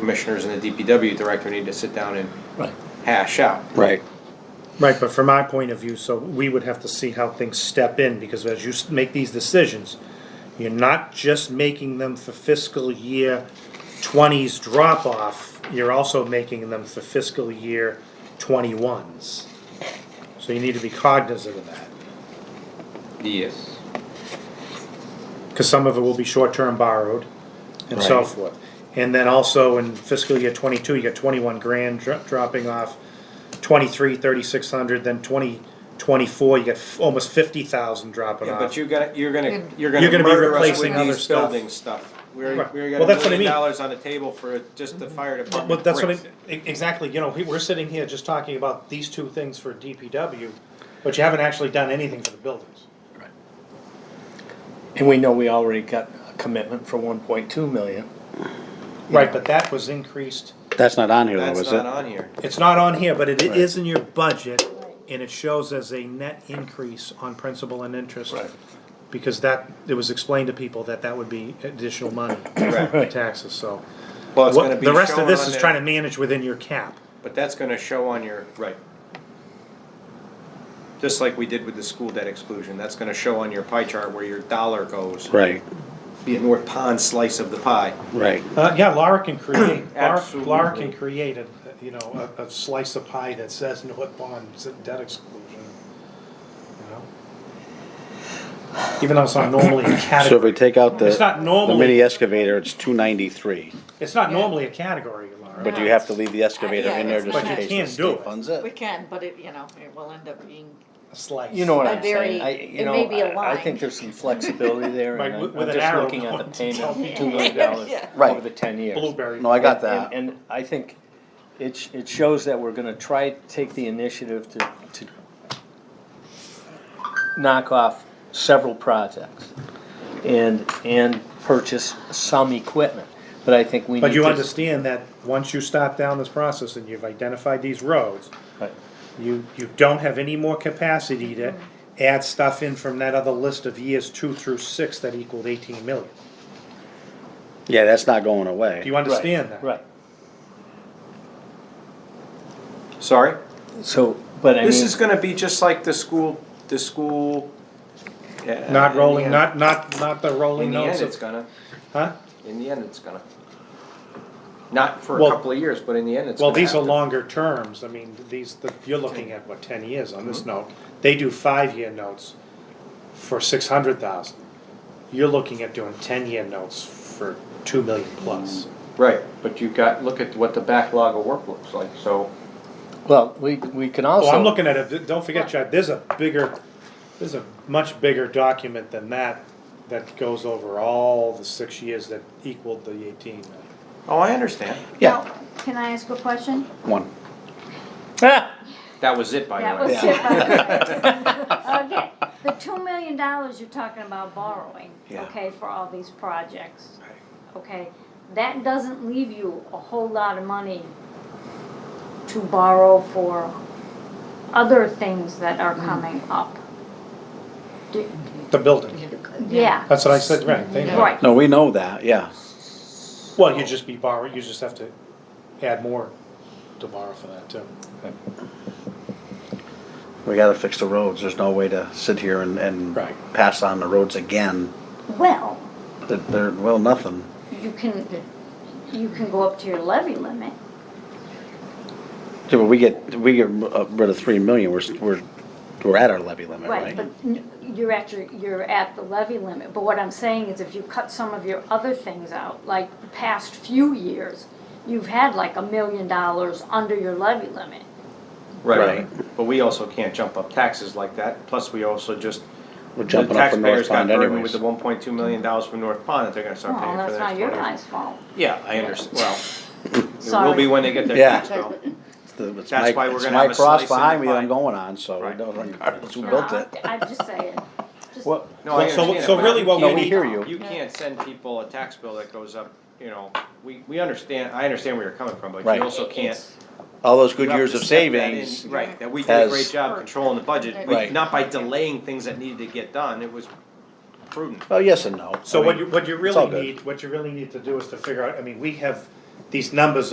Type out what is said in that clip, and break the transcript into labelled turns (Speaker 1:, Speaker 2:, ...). Speaker 1: commissioners and the DPW director need to sit down and
Speaker 2: Right.
Speaker 1: hash out.
Speaker 3: Right.
Speaker 4: Right, but from my point of view, so we would have to see how things step in, because as you s- make these decisions, you're not just making them for fiscal year twenties drop off, you're also making them for fiscal year twenty-ones. So you need to be cognizant of that,
Speaker 1: Yes.
Speaker 4: because some of it will be short-term borrowed and so
Speaker 3: Right.
Speaker 4: forth. And then also in fiscal year twenty-two, you got twenty-one grand dro- dropping off, 23, 3,600, then twenty, twenty-four, you got f- almost fifty thousand dropping
Speaker 1: Yeah,
Speaker 4: off.
Speaker 1: but you're gonna, you're gonna, you're
Speaker 4: You're
Speaker 1: gonna
Speaker 4: gonna be
Speaker 1: murder us
Speaker 4: replacing
Speaker 1: with
Speaker 4: other
Speaker 1: these
Speaker 4: stuff.
Speaker 1: building stuff. We're,
Speaker 4: Right.
Speaker 1: we're
Speaker 4: Well,
Speaker 1: got a
Speaker 4: that's what I
Speaker 1: million
Speaker 4: mean.
Speaker 1: dollars on the table for just the fire department.
Speaker 4: But that's what I,
Speaker 1: bricks.
Speaker 4: e- exactly, you know, we- we're sitting here just talking about these two things for DPW, but you haven't actually done anything for the buildings.
Speaker 2: And we know we already got a commitment for one point two million.
Speaker 4: Right, but that was increased,
Speaker 3: That's not on here though,
Speaker 1: That's
Speaker 3: is
Speaker 1: not
Speaker 3: it?
Speaker 1: on here.
Speaker 4: it's not on here, but it is in your budget, and it shows as a net increase on principal and interest.
Speaker 2: Right.
Speaker 4: Because that, it was explained to people that that would be additional money,
Speaker 1: Correct.
Speaker 4: taxes, so.
Speaker 1: Well, it's
Speaker 4: What-
Speaker 1: gonna be
Speaker 4: The rest of
Speaker 1: shown
Speaker 4: this
Speaker 1: on
Speaker 4: is
Speaker 1: there,
Speaker 4: trying to manage within your cap.
Speaker 1: But that's gonna show on your, right. Just like we did with the school debt exclusion, that's gonna show on your pie chart where your dollar goes.
Speaker 3: Right,
Speaker 1: Be a North Pond slice of the pie.
Speaker 3: right.
Speaker 4: Uh, yeah, Laura can create, Laura, Laura
Speaker 1: Absolutely.
Speaker 4: can create a, you know, a, a slice of pie that says North Pond's debt exclusion. you know? Even though it's not normally a
Speaker 3: So if
Speaker 4: category,
Speaker 3: we take out the,
Speaker 4: It's not normally-
Speaker 3: the mini excavator, it's two ninety-three,
Speaker 4: it's not normally a category, Laura.
Speaker 3: but you have to leave the excavator
Speaker 5: Yeah,
Speaker 3: in there
Speaker 5: it's
Speaker 3: just in
Speaker 5: not-
Speaker 4: But
Speaker 3: case
Speaker 4: you
Speaker 3: the
Speaker 4: can't do
Speaker 3: state
Speaker 4: it.
Speaker 3: funds
Speaker 5: We
Speaker 3: it.
Speaker 5: can, but it, you know, it will end up being,
Speaker 4: A slice.
Speaker 2: You know what
Speaker 5: A
Speaker 2: I'm
Speaker 5: very-
Speaker 2: saying? I, you
Speaker 5: it
Speaker 2: know,
Speaker 5: may be a
Speaker 2: I, I
Speaker 5: line.
Speaker 2: think there's some flexibility there,
Speaker 4: Right,
Speaker 2: and
Speaker 4: with-
Speaker 2: I'm,
Speaker 4: with an
Speaker 2: I'm just
Speaker 4: arrow
Speaker 2: looking at the
Speaker 4: going to tell
Speaker 2: payment,
Speaker 4: me.
Speaker 2: two million dollars
Speaker 5: Yeah.
Speaker 3: Right.
Speaker 2: over the ten years.
Speaker 4: Blueberry.
Speaker 3: No, I got
Speaker 2: And,
Speaker 3: that.
Speaker 2: and I think it, sh- it shows that we're gonna try, to take the initiative to, to knock off several projects and, and purchase some equipment, but I think we need to.
Speaker 4: But you understand that once you start down this process and you've identified these roads,
Speaker 2: Right.
Speaker 4: you, you don't have any more capacity to add stuff in from that other list of years two through six that equaled eighteen million.
Speaker 3: Yeah, that's not going
Speaker 4: Do
Speaker 3: away.
Speaker 4: you understand that?
Speaker 2: Right,
Speaker 1: Sorry?
Speaker 2: so, but I mean.
Speaker 1: This is gonna be just like the school, the school. uh,
Speaker 4: Not rolling,
Speaker 1: in the
Speaker 4: not, not, not the
Speaker 1: end- In
Speaker 4: rolling
Speaker 1: the
Speaker 4: notes
Speaker 1: end, it's
Speaker 4: of,
Speaker 1: gonna,
Speaker 4: huh?
Speaker 1: in the end, it's gonna. Not for a
Speaker 4: Well-
Speaker 1: couple of years, but in the end, it's
Speaker 4: Well,
Speaker 1: gonna
Speaker 4: these are
Speaker 1: happen.
Speaker 4: longer terms, I mean, these, the- you're looking at, what, ten years on
Speaker 1: Mm-hmm.
Speaker 4: this note? They do five-year notes for six hundred thousand. You're looking at doing ten-year notes for two million plus.
Speaker 1: Right, but you've got, look at what the backlog of work looks like, so.
Speaker 2: Well, we, we can
Speaker 4: Oh, I'm
Speaker 2: also,
Speaker 4: looking at it, don't forget, Chad, there's a bigger, there's a much bigger document than that that goes over all the six years that equaled the eighteen million.
Speaker 1: Oh, I understand.
Speaker 3: Yeah.
Speaker 6: Now, Can I ask a question?
Speaker 3: One.
Speaker 2: Ah,
Speaker 1: That was it, by
Speaker 6: That
Speaker 1: the
Speaker 6: was
Speaker 1: way.
Speaker 6: it. Okay, the two million dollars you're talking about borrowing,
Speaker 3: Yeah.
Speaker 6: okay, for all these projects, okay? That doesn't leave you a whole lot of money to borrow for other things that are
Speaker 3: Mm-hmm.
Speaker 6: coming up. Do-
Speaker 4: The building,
Speaker 6: Yeah,
Speaker 4: that's what I said, right, they know.
Speaker 6: right,
Speaker 3: No, we know that, yeah.
Speaker 4: Well, you just be borrowing, you just have to add more to borrow for that too.
Speaker 3: We gotta fix the roads. There's no way to sit here and, and
Speaker 4: Right.
Speaker 3: pass on the roads again.
Speaker 6: well,
Speaker 3: There, there, well, nothing.
Speaker 6: you can, you can go up to your levy limit.
Speaker 3: Yeah, but we get, we get uh, rid of three million, we're, s- we're, we're at our levy limit,
Speaker 6: Right, but
Speaker 3: right?
Speaker 6: n- you're at your, you're at the levy limit, but what I'm saying is if you cut some of your other things out, like the past few years, you've had like a million dollars under your levy limit.
Speaker 1: Right, but we also can't jump up taxes like that, plus we also just.
Speaker 3: We're jumping up from
Speaker 1: The taxpayers
Speaker 3: North Pond
Speaker 1: got burdened with
Speaker 3: anyways.
Speaker 1: the one point two million dollars from North Pond that they're gonna start
Speaker 6: Well,
Speaker 1: paying for
Speaker 6: that's
Speaker 1: the
Speaker 6: not
Speaker 1: next
Speaker 6: your
Speaker 1: twenty.
Speaker 6: guys' fault.
Speaker 1: Yeah, I understand, well, it will
Speaker 6: Sorry.
Speaker 1: be when they get their
Speaker 3: Yeah.
Speaker 1: tax bill.
Speaker 3: It's the- it's
Speaker 1: That's
Speaker 3: my-
Speaker 1: why we're
Speaker 3: it's
Speaker 1: gonna
Speaker 3: my
Speaker 1: have a
Speaker 3: cross
Speaker 1: slice in the
Speaker 3: behind me that
Speaker 1: pie.
Speaker 3: I'm going on, so
Speaker 1: Right.
Speaker 3: it doesn't regardless who
Speaker 6: No,
Speaker 3: built
Speaker 6: I'm-
Speaker 3: it.
Speaker 6: I'm just saying, just.
Speaker 3: Well,
Speaker 1: No, I
Speaker 4: Well, so-
Speaker 1: understand.
Speaker 4: so
Speaker 1: but
Speaker 4: really what
Speaker 3: No,
Speaker 4: we
Speaker 3: we
Speaker 4: need-
Speaker 3: hear you.
Speaker 1: You can't send people a tax bill that goes up, you know, we, we understand, I understand where you're coming from, but
Speaker 3: Right.
Speaker 1: you also can't.
Speaker 3: All those good
Speaker 1: you have
Speaker 3: years
Speaker 1: to
Speaker 3: of
Speaker 1: step that in-
Speaker 3: savings,
Speaker 1: Right, that we did a
Speaker 3: has-
Speaker 1: great job controlling the budget, We-
Speaker 3: Right.
Speaker 1: not by delaying things that needed to get done, it was prudent.
Speaker 3: well, yes and no.
Speaker 4: So
Speaker 3: I
Speaker 4: what
Speaker 3: mean,
Speaker 4: you, what you
Speaker 3: all
Speaker 4: really
Speaker 3: good.
Speaker 4: need, what you really need to do is to figure out, I mean, we have these numbers